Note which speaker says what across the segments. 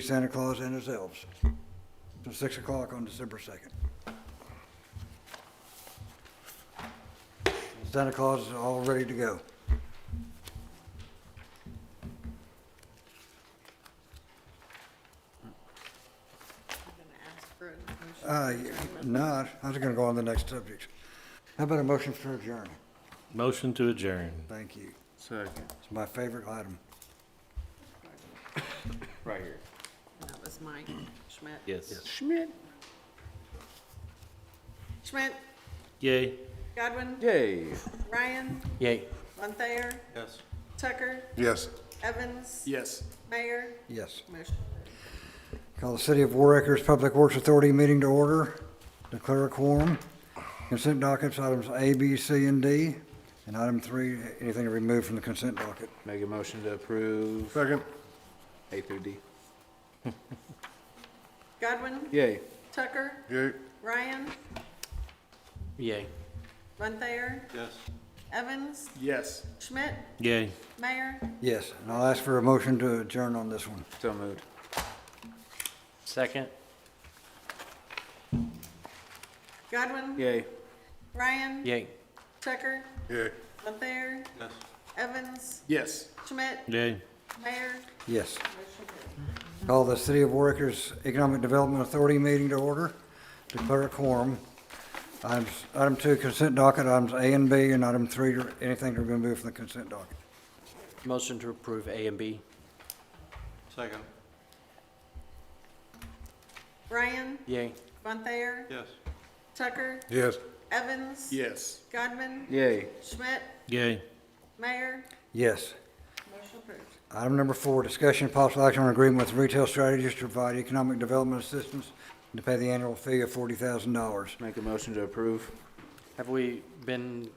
Speaker 1: Santa Claus and his elves, from 6 o'clock on December 2nd. Santa Claus is all ready to go.
Speaker 2: I'm gonna ask for a motion.
Speaker 1: Uh, Not, I was going to go on the next subject. How about a motion for adjournment?
Speaker 3: Motion to adjourn.
Speaker 1: Thank you.
Speaker 4: Second.
Speaker 1: It's my favorite item.
Speaker 4: Right here.
Speaker 2: And that was Mike Schmidt.
Speaker 3: Yes.
Speaker 4: Schmidt.
Speaker 2: Schmidt,
Speaker 3: Yay.
Speaker 2: Godwin,
Speaker 4: Yay.
Speaker 2: Ryan,
Speaker 3: Yay.
Speaker 2: Von Thayer,
Speaker 4: Yes.
Speaker 2: Tucker,
Speaker 5: Yes.
Speaker 2: Evans,
Speaker 4: Yes.
Speaker 2: Mayor,
Speaker 1: Yes.
Speaker 2: motion.
Speaker 1: Call the City of War Acres Public Works Authority meeting to order. Declare a quorum. Consent dockets, items A, B, C, and D. And item three, anything removed from the consent docket.
Speaker 4: Make a motion to approve
Speaker 5: Second.
Speaker 4: A through D.
Speaker 2: Godwin,
Speaker 4: Yay.
Speaker 2: Tucker,
Speaker 5: Yay.
Speaker 2: Ryan,
Speaker 3: Yay.
Speaker 2: Von Thayer,
Speaker 4: Yes.
Speaker 2: Evans,
Speaker 5: Yes.
Speaker 2: Schmidt,
Speaker 3: Yay.
Speaker 2: Mayor,
Speaker 1: Yes, and I'll ask for a motion to adjourn on this one.
Speaker 4: So moved.
Speaker 3: Second.
Speaker 2: Godwin,
Speaker 4: Yay.
Speaker 2: Ryan,
Speaker 3: Yay.
Speaker 2: Tucker,
Speaker 5: Yay.
Speaker 2: Von Thayer,
Speaker 4: Yes.
Speaker 2: Evans,
Speaker 5: Yes.
Speaker 2: Schmidt,
Speaker 3: Yay.
Speaker 2: Mayor,
Speaker 1: Yes.
Speaker 2: motion carried.
Speaker 1: Call the City of War Acres Economic Development Authority meeting to order. Declare a quorum. Items- Item two, consent docket, items A and B, and item three, anything to remove from the consent docket.
Speaker 3: Motion to approve A and B.
Speaker 4: Second.
Speaker 2: Ryan,
Speaker 3: Yay.
Speaker 2: Von Thayer,
Speaker 4: Yes.
Speaker 2: Tucker,
Speaker 5: Yes.
Speaker 2: Evans,
Speaker 5: Yes.
Speaker 2: Godwin,
Speaker 4: Yay.
Speaker 2: Schmidt,
Speaker 3: Yay.
Speaker 2: Mayor,
Speaker 1: Yes.
Speaker 2: motion approved.
Speaker 1: Item number four, discussion and possible action on agreement with retail strategies to provide economic development assistance and to pay the annual fee of forty thousand dollars.
Speaker 4: Make a motion to approve.
Speaker 6: Have we been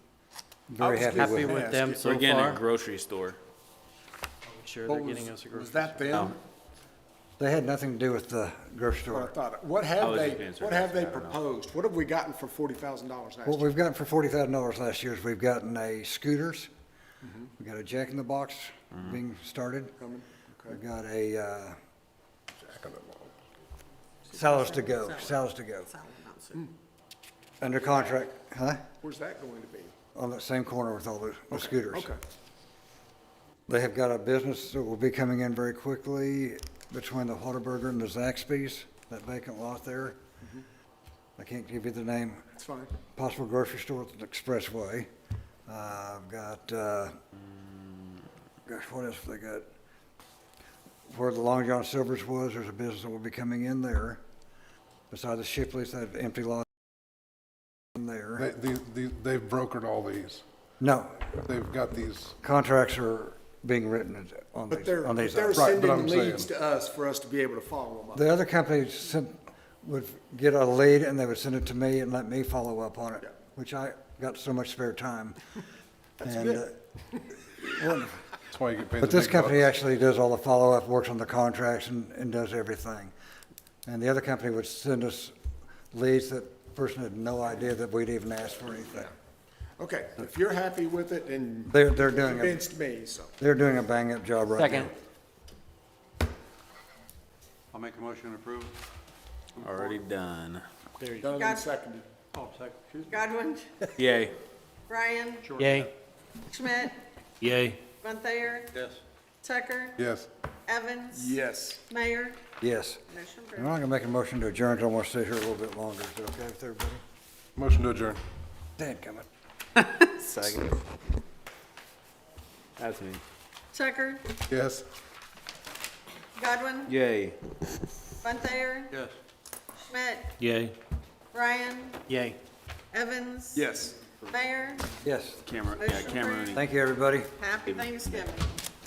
Speaker 1: Very happy with
Speaker 6: happy
Speaker 1: it.
Speaker 6: with them so
Speaker 7: We're getting a
Speaker 6: far?
Speaker 7: grocery store.
Speaker 6: Sure, they're getting us a group.
Speaker 8: Was that them?
Speaker 1: They had nothing to do with the grocery
Speaker 8: What I
Speaker 1: store.
Speaker 8: thought. What
Speaker 7: I
Speaker 8: have
Speaker 7: was
Speaker 8: they,
Speaker 7: just being
Speaker 8: what have they
Speaker 7: sarcastic, I don't know.
Speaker 8: proposed? What have we gotten for forty thousand dollars last
Speaker 1: What
Speaker 8: year?
Speaker 1: we've gotten for forty thousand dollars last year is we've gotten a scooters, we got a Jack in the Box being started,
Speaker 8: Mm-hmm. Coming? Okay.
Speaker 1: we've got a, uh, salads to go, salads to go,
Speaker 2: Solid amounts.
Speaker 1: under contract, huh?
Speaker 8: Where's that going to be?
Speaker 1: On that same corner with all the, the scooters.
Speaker 8: Okay.
Speaker 1: They have got a business that will be coming in very quickly between the Whataburger and the Zaxby's, that vacant lot there.
Speaker 8: Mm-hmm.
Speaker 1: I can't give you the name.
Speaker 8: It's fine.
Speaker 1: Possible grocery store at the Expressway. Uh, I've got, uh, gosh, what else have they got? Where the Long John Silver's was, there's a business that will be coming in there. Beside the Shipley's, that empty lot in
Speaker 5: They,
Speaker 1: there.
Speaker 5: they, they- they've brokered all these.
Speaker 1: No,
Speaker 5: They've got these,
Speaker 1: contracts are being written on
Speaker 8: But
Speaker 1: these,
Speaker 8: they're,
Speaker 1: on
Speaker 8: but
Speaker 1: these.
Speaker 8: they're
Speaker 1: items.
Speaker 5: Right, but I'm
Speaker 8: sending leads
Speaker 5: saying-
Speaker 8: to us for us to be able to follow them up.
Speaker 1: The other company sent, would get a lead and they would send it to me and let me follow up on it, which I got so much spare time. And, uh, well,
Speaker 5: that's why you get paid the
Speaker 1: But this
Speaker 5: big
Speaker 1: company
Speaker 5: bucks.
Speaker 1: actually does all the follow-up, works on the contracts and, and does everything. And the other company would send us leads that person had no idea that we'd even asked for anything.
Speaker 8: Okay, if you're happy with it and
Speaker 1: They're, they're doing, a
Speaker 8: convinced me, so.
Speaker 1: they're doing a bang-up job right now.
Speaker 6: Second.
Speaker 9: I'll make a motion to approve.
Speaker 7: Already done.
Speaker 8: Done
Speaker 2: Got-
Speaker 8: and seconded.
Speaker 9: Oh, second, excuse me.
Speaker 2: Mm. Godwin,
Speaker 7: Yay.
Speaker 2: Ryan,
Speaker 6: Yay.
Speaker 2: Schmidt,
Speaker 3: Yay.
Speaker 2: Von Thayer,
Speaker 9: Yes.
Speaker 2: Tucker,
Speaker 5: Yes.
Speaker 2: Evans.
Speaker 8: Yes.
Speaker 2: Mayor,
Speaker 1: Yes.
Speaker 2: motion approved.
Speaker 1: And I'm gonna make a motion to adjourn, 'cause I wanna stay here a little bit longer. Is that okay with everybody?
Speaker 5: Motion to adjourn.
Speaker 1: Dan, come on.
Speaker 7: Second. That's me.
Speaker 2: Tucker,
Speaker 5: Yes.
Speaker 2: Godwin,
Speaker 4: Yay.
Speaker 2: Von Thayer,
Speaker 9: Yes.
Speaker 2: Schmidt,
Speaker 3: Yay.
Speaker 2: Ryan,
Speaker 6: Yay.
Speaker 2: Evans.
Speaker 8: Yes.
Speaker 2: Mayor,
Speaker 1: Yes.
Speaker 7: Camera, yeah,
Speaker 2: Motion
Speaker 7: camera.
Speaker 2: approved.
Speaker 1: Thank you, everybody.
Speaker 2: happy Thanksgiving.